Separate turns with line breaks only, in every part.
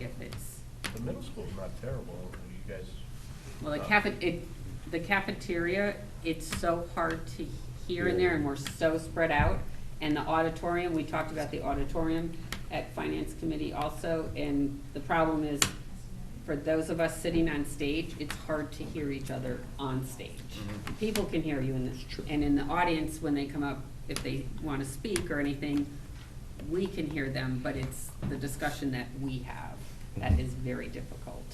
if it's,
The middle school's not terrible, you guys.
well, the cafe, it, the cafeteria, it's so hard to hear in there and we're so spread out. And the auditorium, we talked about the auditorium at finance committee also, and the problem is for those of us sitting on stage, it's hard to hear each other on stage. People can hear you in the, and in the audience when they come up, if they wanna speak or anything, we can hear them, but it's the discussion that we have that is very difficult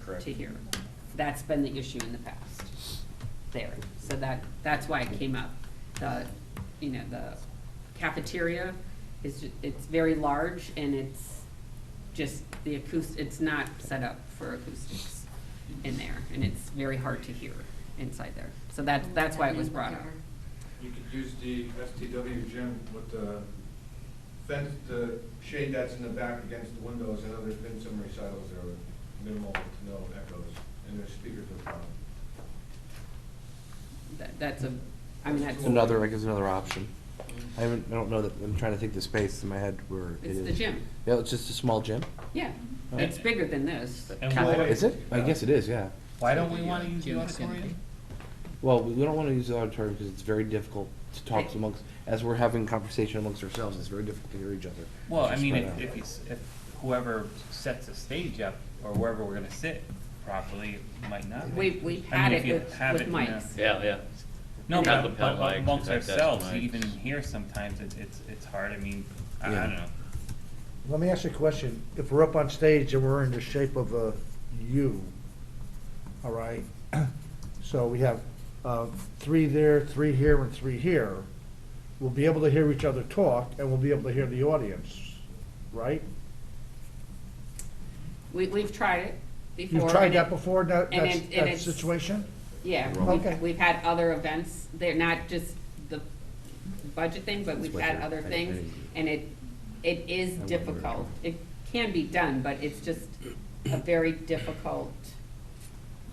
Correct.
to hear. That's been the issue in the past there. So that, that's why it came up. The, you know, the cafeteria is, ju- it's very large and it's just the acoust, it's not set up for acoustics in there. And it's very hard to hear inside there. So that, that's why it was brought up.
You could use the STW gym with the fence, the shade that's in the back against the windows. I know there's been some recitals there with minimal to no echoes, and there's speakers in front.
That, that's a, I mean, that's.
Another, I guess another option. I haven't, I don't know that, I'm trying to think the space in my head where it
It's
is.
the gym.
Yeah, it's just a small gym.
Yeah, it's bigger than this.
And
Well,
why,
wait.
Is it? I guess it is, yeah.
why don't we wanna use the auditorium?
Well, we don't want to use the auditorium because it's very difficult to talk
Right.
amongst, as we're having conversation amongst ourselves, it's very difficult to hear each other.
Well,
It's
I
just
mean,
spread
if,
out.
if it's- if whoever sets the stage up, or wherever we're gonna sit properly, might not.
We,
be.
we've
I
had
mean, if
it
you
with,
have
with
it in a-
mics.
Yeah, yeah.
No,
Yeah.
but but
Lapel mics,
amongst
attached
ourselves,
mics.
even here sometimes, it's, it's, it's hard, I mean, I I
Yeah.
don't know.
Let me ask you a question. If we're up on stage and we're in the shape of a U, all right? So we have uh, three there, three here, and three here. We'll be able to hear each other talk, and we'll be able to hear the audience, right?
We, we've tried it before.
You've tried
and
that
it-
before, that,
and
that's-
it- and
that
it's-
situation?
Yeah,
Wrong. Okay.
we've, we've had other events, they're not just the budget thing, but we've
what
had
they're-
other
I- I
things,
didn't-
and it, it is
wonder.
difficult. It can be done, but it's just a very difficult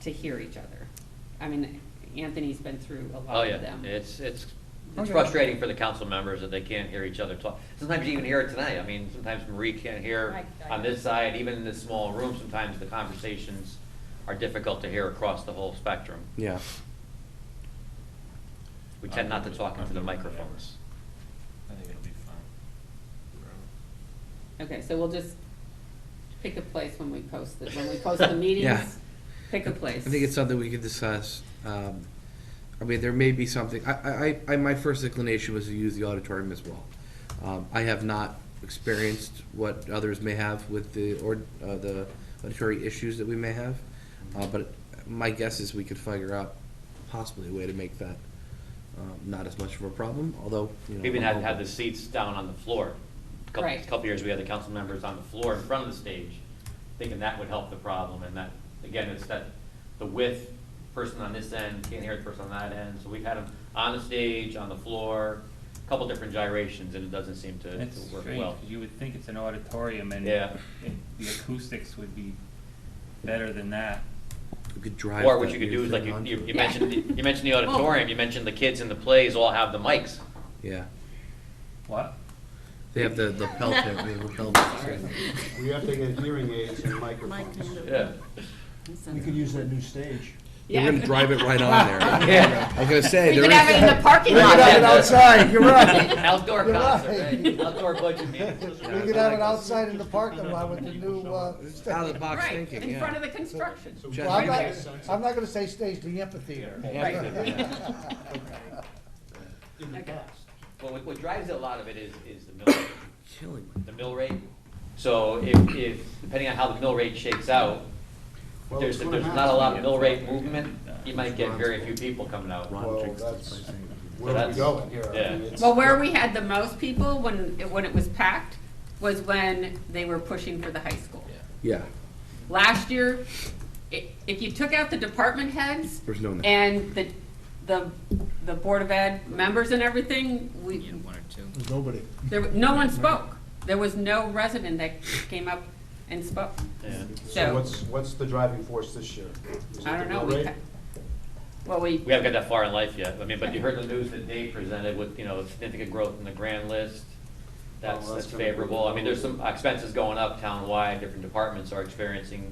to hear each other. I mean, Anthony's been through a
Oh,
lot of
yeah,
them.
it's, it's, it's
Okay.
frustrating for the council members that they can't hear each other talk. Sometimes you even hear it tonight, I mean, sometimes Marie can't hear
I- I-
on this side, even in this small room, sometimes the conversations are difficult to hear across the whole spectrum.
Yeah.
We tend not to talk into the
I'm-
microphones.
I think it'll be fine.
Okay, so we'll just pick a place when we post it, when we post the meetings, pick a place.
I think it's something we could discuss. Um, I mean, there may be something, I, I, I, my first inclination was to use the auditorium as well. Um, I have not experienced what others may have with the, or, uh, the auditory issues that we may have. Uh, but my guess is we could figure out possibly a way to make that, um, not as much of a problem, although, you know.
We even had,
I'm
had the
hoping-
seats down on the floor. Couple,
Right.
couple years, we had the council members on the floor in front of the stage, thinking that would help the problem, and that, again, it's that, the width, person on this end can't hear the person on that end, so we've had them on the stage, on the floor, a couple different gyrations, and it doesn't seem to,
It's
to work
strange,
well.
'cause you would think it's an auditorium and
Yeah.
it- the acoustics would be better than that.
We could drive.
Or what
that
you could
new
do is
thing
like, you,
onto
you you
Yeah.
it.
mentioned, the- you mentioned the
Well-
auditorium, you mentioned the kids in the plays all have the mics.
Yeah,
What?
they have the, the pelt, they have the lapel mics, yeah.
We have to get hearing aids and microphones.
Yeah.
We could use that new stage.
They're
Yeah.
gonna drive it right on there.
Yeah.
I was gonna say,
We
there
could
is.
have it in the parking
We
lot.
could have it outside, you're right.
Outdoor
You're
concert,
right.
right? outdoor budget meetings.
We could have it outside in the parking lot with the new, uh,
It's out of the box
Right,
thinking,
in
yeah.
front of the construction.
Just-
well, I'm not,
Right
I'm not gonna say stage, the amphitheater.
Well, what- what drives a lot of it is, is the mill, rate.
Killing me.
the mill rate. So if, if, depending on how the mill rate shakes out,
Well,
there's,
it's gonna
there's not a lot of
happen.
mill rate movement, you might get very few people coming out.
Ron
Well,
jinxed
that's
us by saying that.
Where are we going here? I mean,
Yeah.
it's-
Well, where we had the most people when, it- when it was packed was when they were pushing for the high school.
Yeah,
Last year, i- if you took out the department heads
there's no. net.
and the, the, the Board of Ed members and everything, we,
Nobody.
there, w- no one spoke. There was no resident that came up and spoke.
Yeah.
So
So,
what's, what's the driving force this year? Is it
I don't
the
know,
mill
we,
rate?
ca- well, we,
We haven't got that far in life yet. I mean, but you heard the news that Dave presented with, you know, significant growth in the grand list, that's,
Well, Oh, that's
that's
gonna be-
favorable. I mean, there's some expenses going up town wide. different departments are experiencing